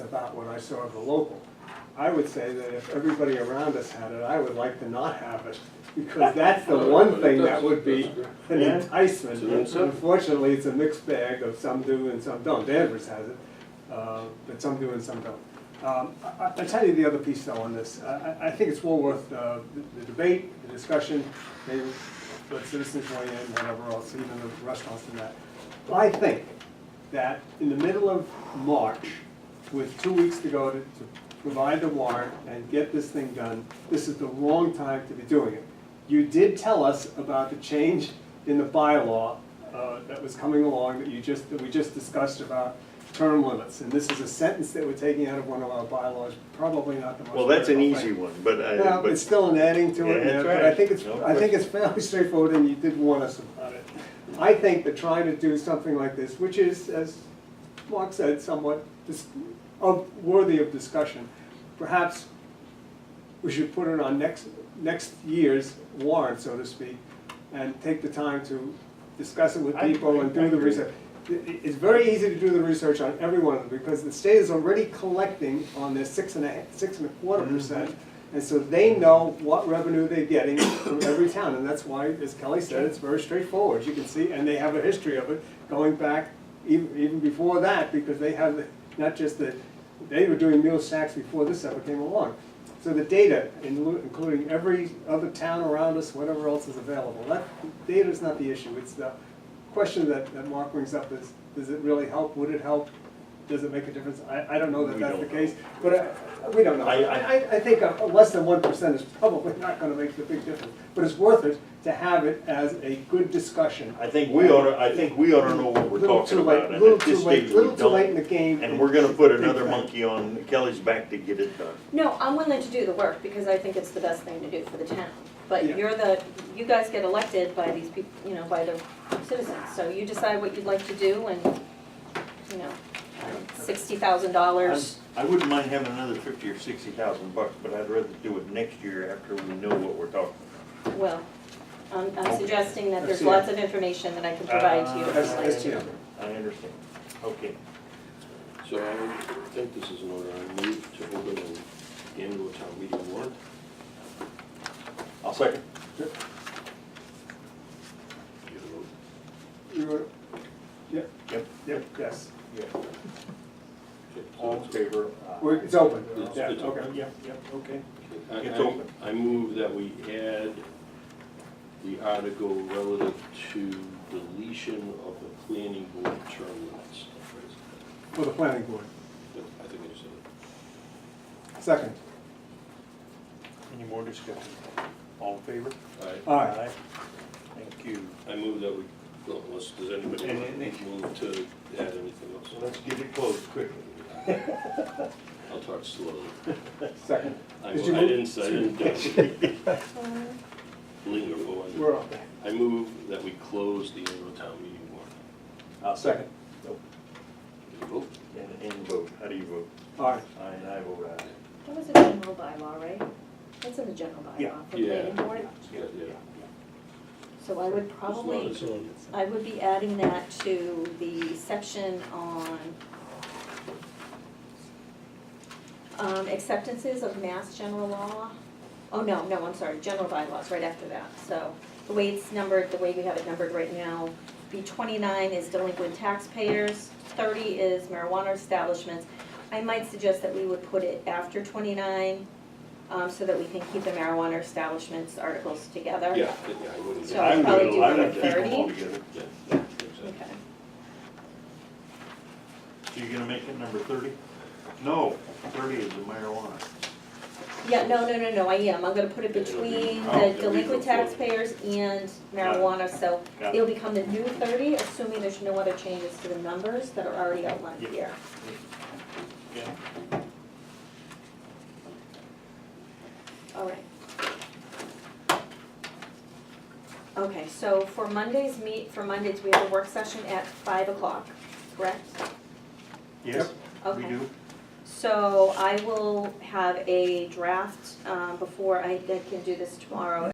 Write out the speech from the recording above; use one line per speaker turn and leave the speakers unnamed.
about what I saw of the local. I would say that if everybody around us had it, I would like to not have it, because that's the one thing that would be an enticement. Unfortunately, it's a mixed bag of some do and some don't. Danvers has it, uh, but some do and some don't. Um, I- I- I'll tell you the other piece though on this. I I- I think it's well worth uh, the the debate, the discussion, maybe let citizens weigh in, whatever else, even the restaurants and that. I think that in the middle of March, with two weeks to go to to provide the warrant and get this thing done, this is the wrong time to be doing it. You did tell us about the change in the bylaw uh, that was coming along that you just, that we just discussed about term limits. And this is a sentence that we're taking out of one of our bylaws, probably not the most.
Well, that's an
critical
easy
thing.
one, but I,
No,
but-
it's still an adding to it,
Yeah,
yeah,
that's
but I
right.
think it's,
No
I think it's fairly straightforward, and you did warn us about it. I think that trying to do something like this, which is, as Mark said, somewhat dis- of, worthy of discussion, perhaps we should put it on next, next year's warrant, so to speak, and take the time to discuss it with
I-
people and
I
do the
agree.
research. I- i- It's very easy to do the research on every one of them, because the state is already collecting on their six and a, ha- six and a quarter
Mm-hmm.
percent. And so they know what revenue they're getting from every town, and that's why, as Kelly said, it's very straightforward, you can see, and they have a history of it going back even, even before that, because they have, the- not just the, they were doing meal sacks before this ever came along. So the data, inlu- including every other town around us, whatever else is available, that, data is not the issue, it's the question that, that Mark brings up is, does it really help, would it help, does it make a difference? I, I don't know that
We
that's the
don't know.
case, but I, we don't know.
I- I-
I, I think a- a less than one percent is probably not gonna make the big difference, but it's worth it to have it as a good discussion.
I think we ought to, I think we ought to know what we're
Little
talking
too late-
about, and
little
at this
too late-
stage we
Little too late in
don't.
the game.
And we're gonna put another
Big bang.
monkey on Kelly's back to get it done.
No, I'm willing to do the work because I think it's the best thing to do for the town.
Yeah.
But you're the, you guys get elected by these people, you know, by the citizens, so you decide what you'd like to do and, you know, sixty thousand dollars.
I wouldn't mind having another fifty or sixty thousand bucks, but I'd rather do it next year after we know what we're talking
Well, I'm, I'm
Okay. Uh,
suggesting that there's
That's it.
lots of information that I can provide to you. if
That's,
you
that's,
wanted to.
about. I understand. Okay.
So I think this is an order, I move to open an annual town meeting warrant.
I'll second.
you were, yep,
Yep.
yep, yes,
Yeah.
Okay, so
All in
it's-
favor?
We're- it's open,
It's-
yeah,
it's
okay.
open.
Yep, yep, okay.
I-
It's
I-
open.
I move that we add the article relative to deletion of the planning board term limits.
For the planning board,
But I think I said
second,
Any more discussion? All in favor?
it.
all right,
Thank you.
I, I move that we, well, unless, does anybody
And then they-
move to add anything
So
else?
let's get it closed quickly.
I'll talk slowly.
second,
I I
Did you move?
didn't, I didn't
Um,
uh, linger for one.
we're up.
I move that we close the annual town meeting warrant.
I'll second.
Can you vote?
And, and vote. How do you vote?
All right,
Aye, and I vote aye.
That was a general bylaw, right? That's in the general
Yeah.
bylaw for
Yeah.
planning board.
Yeah, yeah.
So I would
As long
probably,
as it's-
I would be adding that to the section on um, acceptances of mass general law. Oh, no, no, I'm sorry, general bylaws, right after that. So the way it's numbered, the way we have it numbered right now, B twenty-nine is delinquent taxpayers, thirty is marijuana establishments. I might suggest that we would put it after twenty-nine, um, so that we can keep the marijuana establishments articles together.
Yeah, yeah, I wouldn't.
So I'd probably do
I
number
would keep them all
30.
together.
Yeah, yeah, exactly.
Okay.
So you're gonna make it number thirty? No, thirty is the marijuana.
Yeah, no, no, no, no, I am, I'm gonna put it between
Oh,
the
yeah,
delinquent
we-
taxpayers and marijuana, so
Got it.
it'll become the new thirty, assuming there's no other changes to the numbers that are already outlined
Yeah.
here.
Yeah.
All right. Okay, so for Mondays, meet, for Mondays, we have a work session at five o'clock, correct?
Yes, we
Okay.
do.
So I will have a draft, um, before I I can do this tomorrow,